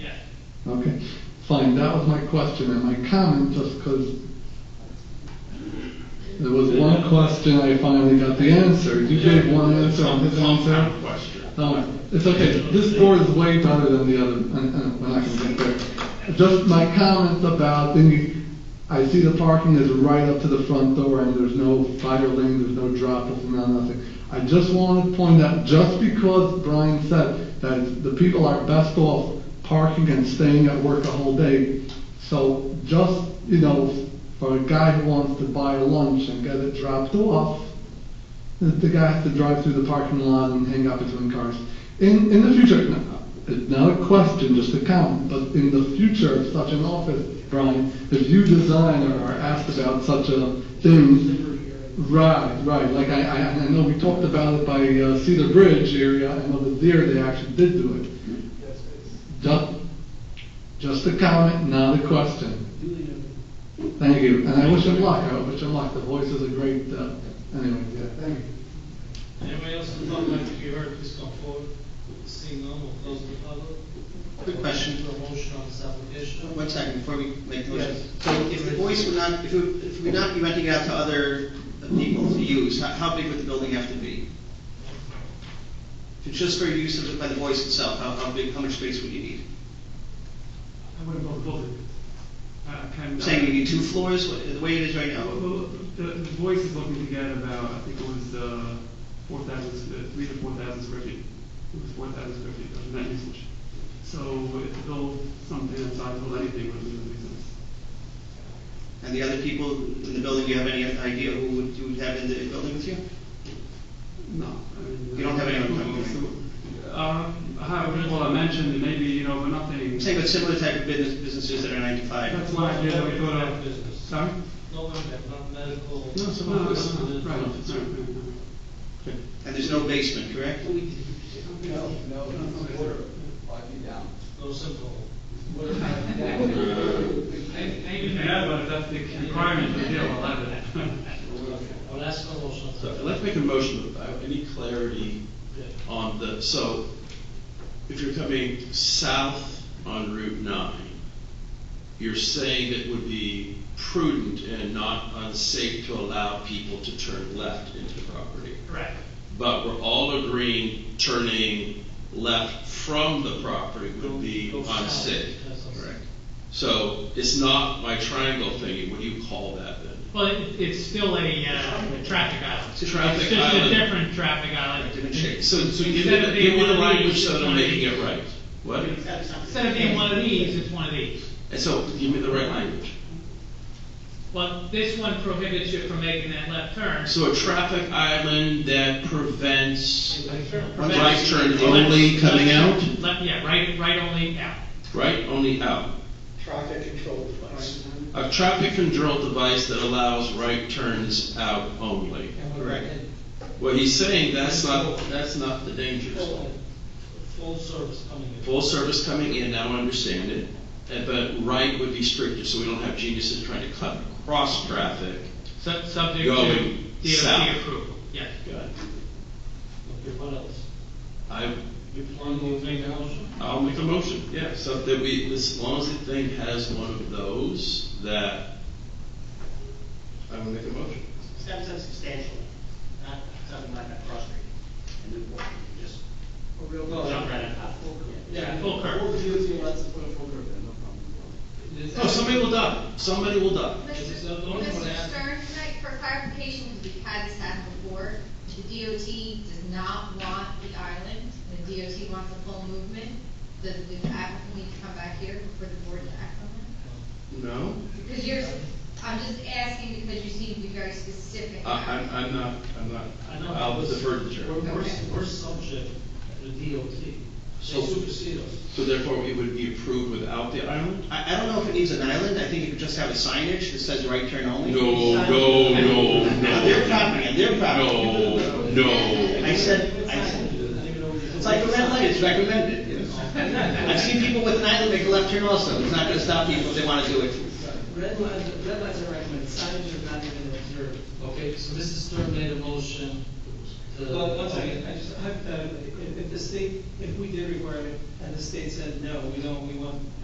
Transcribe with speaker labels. Speaker 1: Okay, fine, that was my question, and my comment, just because there was one question I finally got the answer. You gave one answer on his
Speaker 2: Some
Speaker 1: answer.
Speaker 2: kind of question.
Speaker 1: Um, it's okay, this board is way better than the other, and, and we're not gonna get there. Just my comments about, the I see the parking is right up to the front door, and there's no fire lane, there's no drop, there's no nothing. I just wanted to point out, just because Brian said that the people are best off parking and staying at work a whole day, so just, you know, for a guy who wants to buy a lunch and get it dropped off, the- the guy has to drive through the parking lot and hang up his own cars. In, in the future, no, it's not a question, just a comment, but in the future of such an office, Brian, if you design or are asked about such a thing, right, right, like I, I, I know we talked about it by uh, Cedar Bridge area, and over there, they actually did do it. Just, just a comment, not a question. Thank you, and I wish him luck, I wish him luck, the voice is a great, uh, anyway, yeah, thank you.
Speaker 3: Anybody else who thought like you heard, please come forward. Seeing none, we'll close the public.
Speaker 4: Quick question.
Speaker 3: A motion on this application.
Speaker 4: One second, before we make the
Speaker 3: Yes.
Speaker 4: motion. So if the voice would not, if it- if we'd not be renting it out to other people to use, how- how big would the building have to be? If it's Just for use of- by the voice itself, how how big, how much space would you need?
Speaker 5: I wouldn't go above it. Uh, kind
Speaker 4: I'm
Speaker 5: of.
Speaker 4: saying you need two floors, the way it is right now.
Speaker 5: Well, well, The, the voice is looking to get about, I think it was, uh, four thousand, uh, three to four thousand square feet. It was four thousand square feet of net usage. So if to build something that size of anything would be the reason.
Speaker 4: And the other people in the building, do you have any idea who would, you would have in the building with you?
Speaker 5: No, I mean.
Speaker 4: You don't have anyone coming,
Speaker 5: So, Um, I have, well, I mentioned maybe, you know, but nothing.
Speaker 4: I'm saying with similar type of business, businesses that are nine to five.
Speaker 5: That's why I did, I thought of.
Speaker 3: Business.
Speaker 5: Sorry?
Speaker 3: No, we have not medical.
Speaker 5: No, so, no, no, no, right, right, right, right.
Speaker 4: And there's no basement, correct?
Speaker 6: No, no, it's a quarter, five feet down.
Speaker 3: No simple.
Speaker 5: Maybe that, but that's the requirement for deal eleven.
Speaker 3: I'll ask for a motion. on this.
Speaker 7: So I'd like to make a motion without any clarity on the, so if you're coming south on Route 9, you're saying it would be prudent and not unsafe to allow people to turn left into the property.
Speaker 5: Correct.
Speaker 7: But we're all agreeing turning left from the property would be
Speaker 3: Go- go south.
Speaker 7: unsafe.
Speaker 3: That's unsafe.
Speaker 7: Correct. So it's not my triangle thingy, what do you call that then?
Speaker 8: Well, it- it's still a, uh, a traffic island.
Speaker 7: It's a traffic
Speaker 8: It's
Speaker 7: island.
Speaker 8: just a different traffic island.
Speaker 4: Different shape.
Speaker 7: So, so give
Speaker 8: Instead
Speaker 7: it,
Speaker 8: of
Speaker 7: give
Speaker 8: being
Speaker 7: it
Speaker 8: one
Speaker 7: a
Speaker 8: of
Speaker 7: language
Speaker 8: these,
Speaker 7: so
Speaker 8: it's
Speaker 7: they're
Speaker 8: one of
Speaker 7: making
Speaker 8: these.
Speaker 7: it right. What?
Speaker 8: Instead of being one of these, it's one of these.
Speaker 7: And so, give me the right language.
Speaker 8: Well, this one prohibits you from making that left turn.
Speaker 7: So a traffic island that prevents
Speaker 8: Prevents-
Speaker 7: right turn only coming out,
Speaker 8: Left, yeah, right, right only out.
Speaker 7: right only out.
Speaker 6: Traffic control device.
Speaker 7: A traffic control device that allows right turns out only.
Speaker 4: Correct.
Speaker 7: What he's saying, that's not, that's not the danger zone.
Speaker 3: Full- Full service coming in.
Speaker 7: Full service coming in, now I understand it, and- but right would be stricter, so we don't have geniuses trying to cut across traffic.
Speaker 8: Sub- Subject to
Speaker 7: Going
Speaker 8: DOT
Speaker 7: south.
Speaker 8: approval, yes.
Speaker 7: Got it.
Speaker 3: Okay, what else?
Speaker 7: I
Speaker 3: You plan to make a motion?
Speaker 7: I'll make a motion, yeah, so that we, as long as the thing has one of those, that I will make a motion.
Speaker 9: Steps up substantially, not something like a cross street in Newport, just
Speaker 6: A real
Speaker 9: jump right on top.
Speaker 8: Yeah, full curve.
Speaker 6: What DOT lets us put a full curve in, no problem.
Speaker 8: Oh,
Speaker 7: No, somebody will die, somebody will die.
Speaker 10: Mr.
Speaker 3: Is that the only one that
Speaker 10: Mr.
Speaker 3: has-
Speaker 10: Stern, can I, for clarification, because we've had this happen before, the DOT does not want the island, the DOT wants a full movement. Does the applicant need to come back here for the board to act on that?
Speaker 7: No,
Speaker 10: Because you're, I'm just asking because you seem to be very specific.
Speaker 7: I, I'm, I'm not, I'm not,
Speaker 3: I know.
Speaker 7: I'll defer to the
Speaker 3: We're,
Speaker 7: chair.
Speaker 3: we're,
Speaker 10: Okay.
Speaker 3: we're subject to the DOT.
Speaker 7: So-
Speaker 3: They supersede us.
Speaker 7: So therefore, it would be approved without the island?
Speaker 4: I, I don't know if it needs an island, I think you could just have a signage that says right turn only.
Speaker 7: No, no, no,
Speaker 4: On their
Speaker 7: no,
Speaker 4: property, on their property.
Speaker 7: no, no.
Speaker 4: I said, I said, it's like a red light, it's recommended, you know. I've seen people with an island make a left turn also, it's not gonna stop people if they wanna do it.
Speaker 6: Red lines, red lines are recommended, signage is not even observed.
Speaker 3: Okay, so Mrs. Stern made a motion to.
Speaker 6: But one second, I uh, just, hypothetically, if, if the state, if we did require it, and the state said, no, we don't, we want